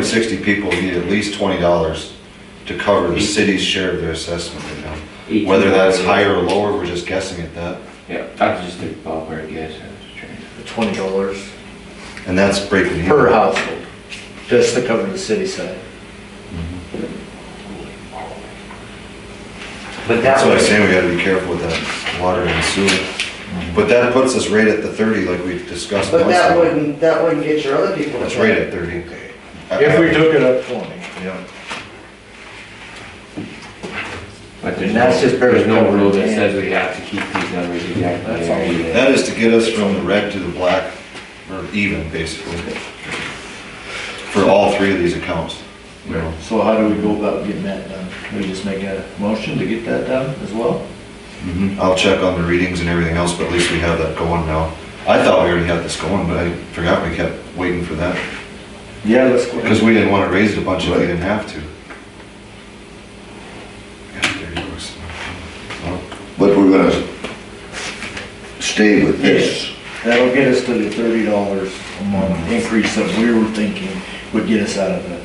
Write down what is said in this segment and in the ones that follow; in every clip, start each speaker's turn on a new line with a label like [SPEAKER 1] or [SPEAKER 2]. [SPEAKER 1] 260 people need at least $20 to cover the city's share of their assessment right now. Whether that's higher or lower, we're just guessing at that.
[SPEAKER 2] Yeah, I was just a ballpark guess, I was trying to.
[SPEAKER 3] twenty dollars
[SPEAKER 1] And that's breaking even.
[SPEAKER 3] per household, just to cover the city side.
[SPEAKER 4] But
[SPEAKER 1] That's
[SPEAKER 4] that
[SPEAKER 1] what I'm
[SPEAKER 4] was,
[SPEAKER 1] saying, we gotta be careful with that water and sewer. But that puts us right at the 30 like we discussed
[SPEAKER 5] But
[SPEAKER 1] months
[SPEAKER 5] that
[SPEAKER 1] ago.
[SPEAKER 5] wouldn't, that wouldn't get your other people to
[SPEAKER 1] That's right
[SPEAKER 5] pay.
[SPEAKER 1] at 30.
[SPEAKER 3] If we took it up twenty.
[SPEAKER 1] Yeah.
[SPEAKER 2] But there's
[SPEAKER 3] And that's
[SPEAKER 2] no,
[SPEAKER 3] just very
[SPEAKER 2] there's no rule that
[SPEAKER 3] government.
[SPEAKER 2] says we have to keep these numbers exactly
[SPEAKER 3] That's
[SPEAKER 2] there
[SPEAKER 3] all.
[SPEAKER 2] either.
[SPEAKER 1] That is to get us from the red to the black, or even, basically, for all three of these accounts. you know.
[SPEAKER 3] So how do we go about getting that done? We just make a motion to get that done as well?
[SPEAKER 1] Mm-hmm. I'll check on the readings and everything else, but at least we have that going now. I thought we already had this going, but I forgot we kept waiting for that,
[SPEAKER 3] Yeah, let's go.
[SPEAKER 1] because we didn't wanna raise it a bunch if we didn't have to. Yeah, there you go. Well,
[SPEAKER 6] But we're gonna stay with this.
[SPEAKER 3] That'll get us to the thirty dollars a month increase that we were thinking would get us out of it.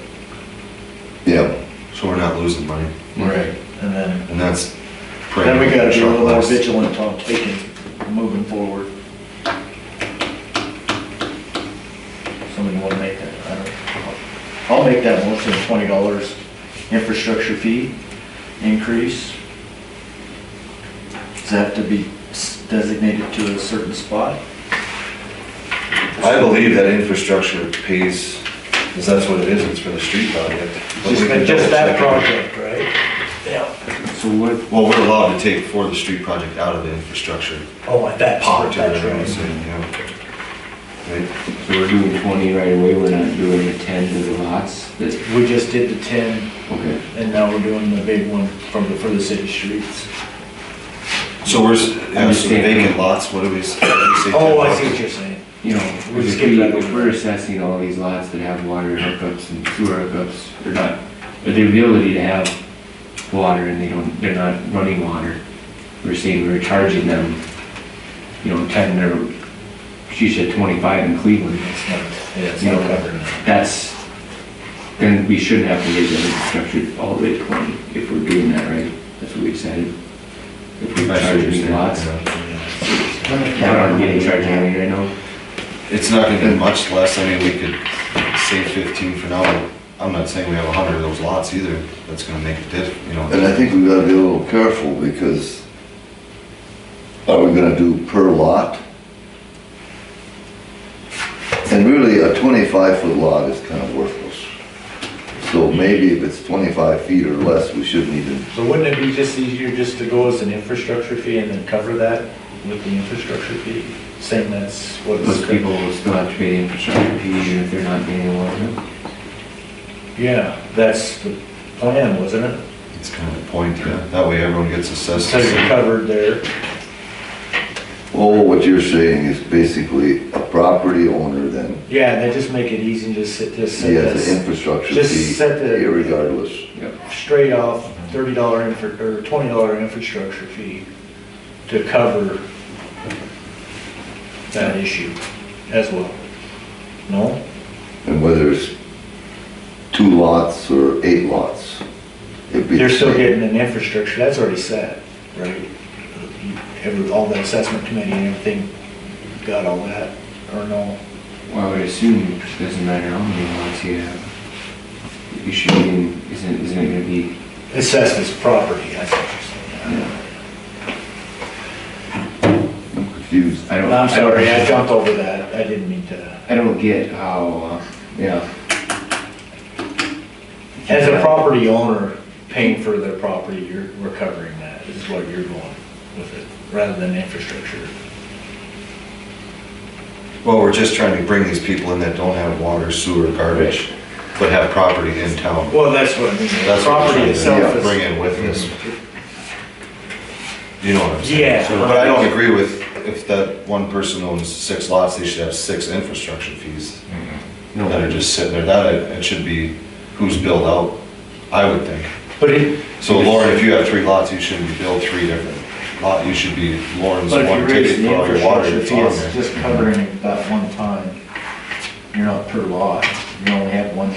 [SPEAKER 6] Yeah,
[SPEAKER 1] So we're not losing money,
[SPEAKER 3] Right. And then,
[SPEAKER 1] and that's.
[SPEAKER 3] then we gotta be a little more
[SPEAKER 1] less.
[SPEAKER 3] vigilant on taking, moving forward. Somebody wanna make that, I don't, I'll make that motion, twenty dollars infrastructure fee increase. Does that have to be s- designated to a certain spot?
[SPEAKER 1] I believe that infrastructure pays, because that's what it is, it's for the street project. But we can double check it.
[SPEAKER 4] right? Yeah.
[SPEAKER 2] So what,
[SPEAKER 1] Well, we're allowed to take for the street project out of the infrastructure.
[SPEAKER 4] Oh, at that
[SPEAKER 1] pot
[SPEAKER 4] part,
[SPEAKER 1] to the
[SPEAKER 4] that's
[SPEAKER 1] road,
[SPEAKER 4] right.
[SPEAKER 1] so, yeah. Right?
[SPEAKER 2] so we're doing twenty right away, we're not doing the ten to the lots, that's,
[SPEAKER 3] We just did the ten,
[SPEAKER 2] okay.
[SPEAKER 3] and now we're doing the big one from the, for the city streets.
[SPEAKER 1] So we're, s- yeah, so
[SPEAKER 2] Understand.
[SPEAKER 1] vacant lots, what do we s- we say?
[SPEAKER 4] Oh, I see what you're saying.
[SPEAKER 2] You know,
[SPEAKER 4] We're just
[SPEAKER 2] if
[SPEAKER 4] giving
[SPEAKER 2] we,
[SPEAKER 4] that
[SPEAKER 2] if we're assessing all these lots that have water hookups and sewer hookups, or not, but the ability to have water and they don't, they're not running water. We're saying we're charging them, you know, ten or, she said twenty-five in Cleveland.
[SPEAKER 3] It's not, yeah, it's not covered.
[SPEAKER 2] That's, then we shouldn't have to raise the infrastructure all the way to twenty, if we're doing that right, that's what we decided. If
[SPEAKER 1] I see
[SPEAKER 2] we're
[SPEAKER 1] what
[SPEAKER 2] charging
[SPEAKER 1] you're
[SPEAKER 2] these
[SPEAKER 1] saying,
[SPEAKER 2] lots,
[SPEAKER 1] yeah.
[SPEAKER 2] I don't get any charge money right now.
[SPEAKER 1] It's not gonna be much less, I mean, we could say fifteen for now, I'm not saying we have a hundred of those lots either, that's gonna make a diff, you know.
[SPEAKER 6] and I think we gotta be a little careful because are we gonna do per lot? And really, a twenty-five foot lot is kind of worthless. So maybe if it's twenty-five feet or less, we shouldn't even,
[SPEAKER 3] So wouldn't it be just easier just to go as an infrastructure fee and then cover that with the infrastructure fee? Saying that's what
[SPEAKER 2] Those
[SPEAKER 3] it's,
[SPEAKER 2] people will still have to pay the infrastructure fee even if they're not getting water.
[SPEAKER 3] yeah, that's the plan, wasn't it?
[SPEAKER 1] It's kind of the point, yeah, that way everyone gets assessed.
[SPEAKER 3] So you're covered there.
[SPEAKER 6] oh, what you're saying is basically a property owner then,
[SPEAKER 3] Yeah, and they just make it easy and just sit, just
[SPEAKER 6] he
[SPEAKER 3] set
[SPEAKER 6] has an
[SPEAKER 3] this
[SPEAKER 6] infrastructure
[SPEAKER 3] just
[SPEAKER 6] fee
[SPEAKER 3] set the-
[SPEAKER 6] irregardless.
[SPEAKER 3] straight off thirty dollar infra, or twenty dollar infrastructure fee to cover that issue as well. No?
[SPEAKER 6] And whether it's two lots or eight lots, it'd be the
[SPEAKER 3] You're still
[SPEAKER 6] same.
[SPEAKER 3] getting an infrastructure, that's already set, right? Every, all the assessment committee and everything got all that, or no?
[SPEAKER 2] Well, I would assume it doesn't matter how many lots you have. You should be, in- isn't, isn't it gonna be,
[SPEAKER 3] Assessed as property, I think.
[SPEAKER 6] confused.
[SPEAKER 2] I don't.
[SPEAKER 3] I'm
[SPEAKER 2] I don't-
[SPEAKER 3] sorry, I jumped over that, I didn't mean to.
[SPEAKER 2] I don't get how, uh, yeah.
[SPEAKER 3] As a property owner paying for their property, you're recovering that, is what you're going with it, rather than infrastructure.
[SPEAKER 1] Well, we're just trying to bring these people in that don't have water, sewer, garbage, but have property in town.
[SPEAKER 3] Well, that's what I mean,
[SPEAKER 1] That's what we're
[SPEAKER 3] property
[SPEAKER 1] trying to
[SPEAKER 3] itself
[SPEAKER 1] yeah, Bring
[SPEAKER 3] is,
[SPEAKER 1] in with us. You know what I'm saying?
[SPEAKER 3] Yeah.
[SPEAKER 1] So, But I don't agree with, if that one person owns six lots, they should have six infrastructure fees
[SPEAKER 2] No,
[SPEAKER 1] that are just sitting there. That, it it should be who's billed out, I would think.
[SPEAKER 3] but it,
[SPEAKER 1] So Lauren, if you have three lots, you shouldn't be billed three different lot, you should be Lauren's
[SPEAKER 3] But if you
[SPEAKER 1] one
[SPEAKER 3] raise
[SPEAKER 1] ticket
[SPEAKER 3] the
[SPEAKER 1] for all your water
[SPEAKER 3] infrastructure
[SPEAKER 1] that's
[SPEAKER 3] fee,
[SPEAKER 1] on
[SPEAKER 3] it's
[SPEAKER 1] there.
[SPEAKER 3] just covering that one time. You're not per lot, you only have one